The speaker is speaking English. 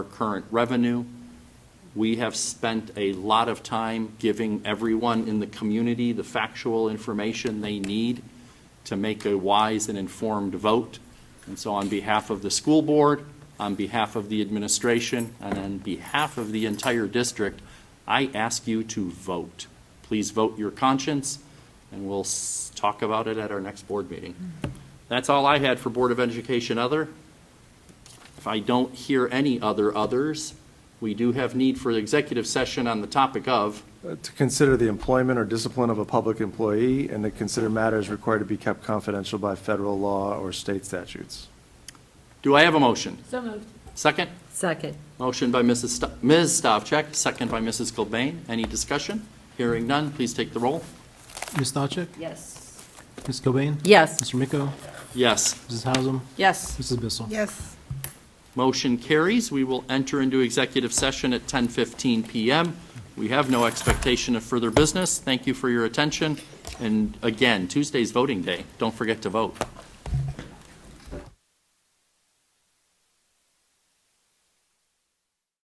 our current revenue. We have spent a lot of time giving everyone in the community the factual information they need to make a wise and informed vote. And so on behalf of the school board, on behalf of the administration, and on behalf of the entire district, I ask you to vote. Please vote your conscience, and we'll s- talk about it at our next board meeting. That's all I had for Board of Education other. If I don't hear any other others, we do have need for the executive session on the topic of, Uh, To consider the employment or discipline of a public employee and to consider matters required to be kept confidential by federal law or state statutes. do I have a motion? So moved. Second? Second. Motion by Mrs. Sto- Ms. Stavcek, second by Mrs. Cobain. Any discussion? Hearing none, please take the roll. Ms. Stavcek? Yes. Ms. Cobain? Yes. Mr. Miko? Yes, Mrs. Hausum? Yes. Mrs. Bissell? Yes, motion carries. We will enter into executive session at 10:15 PM. We have no expectation of further business. Thank you for your attention. And again, Tuesday's voting day. Don't forget to vote.